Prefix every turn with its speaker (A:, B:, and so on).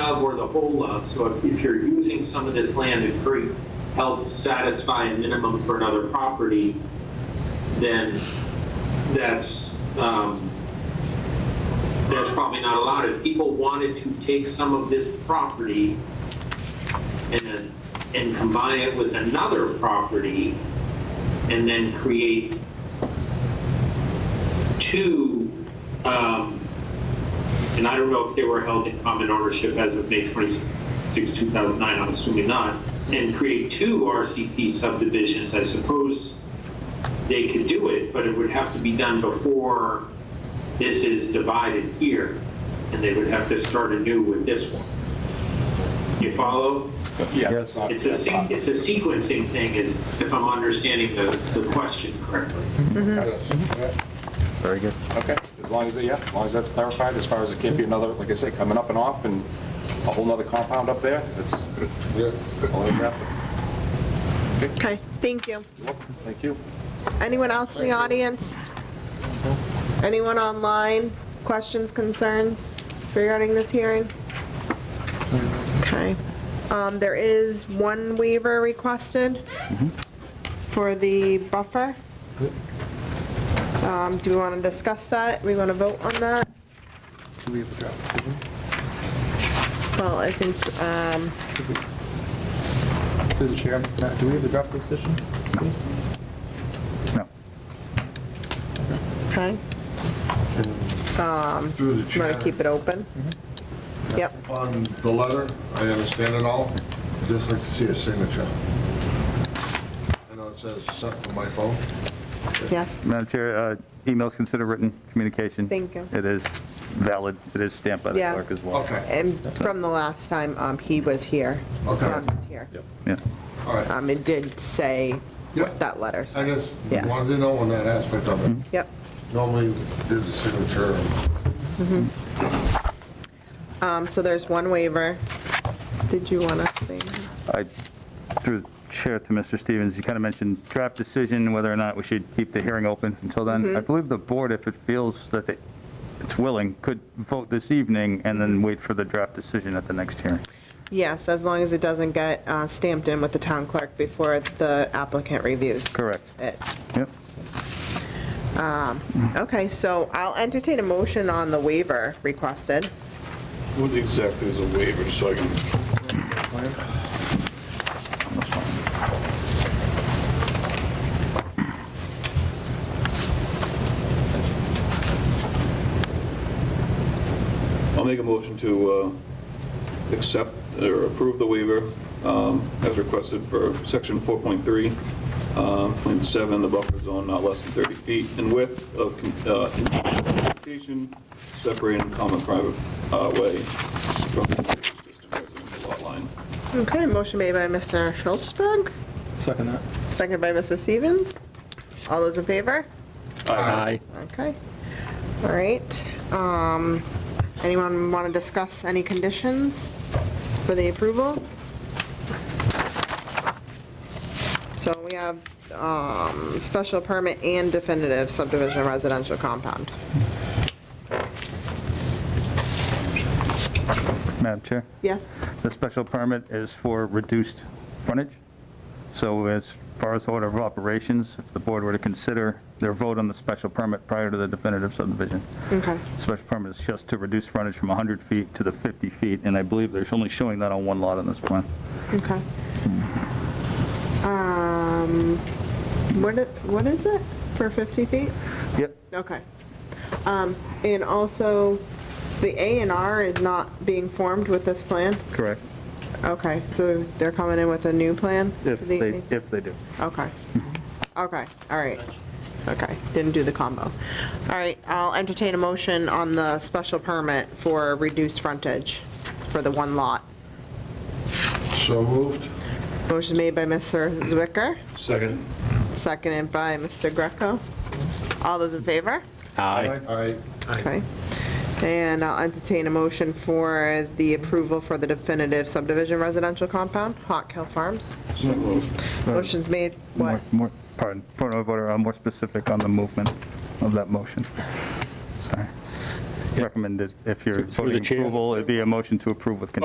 A: of or the whole of. So if- if you're using some of this land to create, help satisfy a minimum for another property, then that's, um, that's probably not allowed. If people wanted to take some of this property and, and combine it with another property and then create two, um, and I don't know if they were held in common ownership as of May 26, 2009, I'm assuming not, and create two RCP subdivisions, I suppose they could do it, but it would have to be done before this is divided here, and they would have to start anew with this one. You follow?
B: Yeah, that's not.
A: It's a,
B: that's
A: se-
B: not-
A: it's a sequencing thing, is, if I'm understanding the, the question correctly.
C: Very good.
B: Okay, as long as, yeah, as long as that's clarified, as far as it can't be another, like I say, coming up and off and a whole nother compound up there, that's. all I have.
D: Okay, thank you.
B: You're welcome. Thank you.
D: Anyone else in the audience? Anyone online? Questions, concerns regarding this hearing? Okay. Um, There is one waiver requested for the buffer. Um, Do we want to discuss that? We want to vote on that?
E: Do we have a draft decision?
D: Well, I think, um,
E: Through the chair, Matt, do we have a draft decision? please?
C: No.
D: okay, Um,
F: Through the
D: you want
F: chair,
D: to keep it open? Yep,
F: on the letter, I understand it all, just like to see a signature. I know it says something on my phone.
D: yes,
C: Madam Chair, uh, emails considered written communication.
D: Thank you.
C: It is valid, it is stamped by the
D: Yeah.
C: clerk as well.
F: Okay,
D: and from the last time um, he was here.
F: Okay.
D: John was here.
C: Yeah.
F: all right.
D: Um, it did say
F: Yeah.
D: what that letter
F: I
D: said.
F: just
D: Yeah. Mm-hmm.
F: wanted to know on that aspect of it.
D: Yep.
F: Normally, there's a signature.
D: Um, so there's one waiver. Did you want to say?
C: I through the chair to Mr. Stevens, you kind of mentioned draft decision, whether or not we should keep the hearing open until then.
D: Mm-hmm.
C: I believe the board, if it feels that they- it's willing, could vote this evening and then wait for the draft decision at the next hearing.
D: Yes, as long as it doesn't get uh, stamped in with the town clerk before the applicant reviews
C: Correct.
D: it.
C: Yep.
D: Okay, so I'll entertain a motion on the waiver requested.
G: What exactly is a waiver, so I can, I'll make a motion to uh, accept or approve the waiver um, as requested for section 4.3, um, point 7, the buffer zone not less than 30 feet in width of con- uh, communication separating common private uh, way from the existing residential lot line.
D: Okay, motion made by Mr. Schultzberg,
E: Second that.
D: seconded by Mrs. Stevens. All those in favor?
F: Aye.
D: Okay. All right. Um, Anyone want to discuss any conditions for the approval? So we have um, special permit and definitive subdivision residential compound.
C: Madam Chair?
D: Yes?
C: The special permit is for reduced frontage. So as far as order of operations, if the board were to consider their vote on the special permit prior to the definitive subdivision,
D: Okay.
C: special permit is just to reduce frontage from 100 feet to the 50 feet, and I believe they're only showing that on one lot on this plan.
D: Okay. Um, What, it- what is it for 50 feet?
C: Yep.
D: Okay. Um, And also, the A and R is not being formed with this plan?
C: Correct.
D: Okay, so they're coming in with a new plan?
C: If
D: for the
C: they,
D: evening?
C: if they do.
D: Okay. Okay, all right. Okay, didn't do the combo. All right, I'll entertain a motion on the special permit for reduced frontage for the one lot.
F: So moved.
D: Motion made by Mr. Zwicker,
G: Second.
D: seconded by Mr. Greco. All those in favor?
F: Aye. Aye.
D: Okay. And I'll entertain a motion for the approval for the definitive subdivision residential compound, Hawk Hill Farms.
G: So moved.
D: Motion's made, what?
C: More- More, pardon, point of order, I'm more specific on the movement of that motion. Sorry. Recommended, if you're voting approval, it'd be a motion to approve with conditions.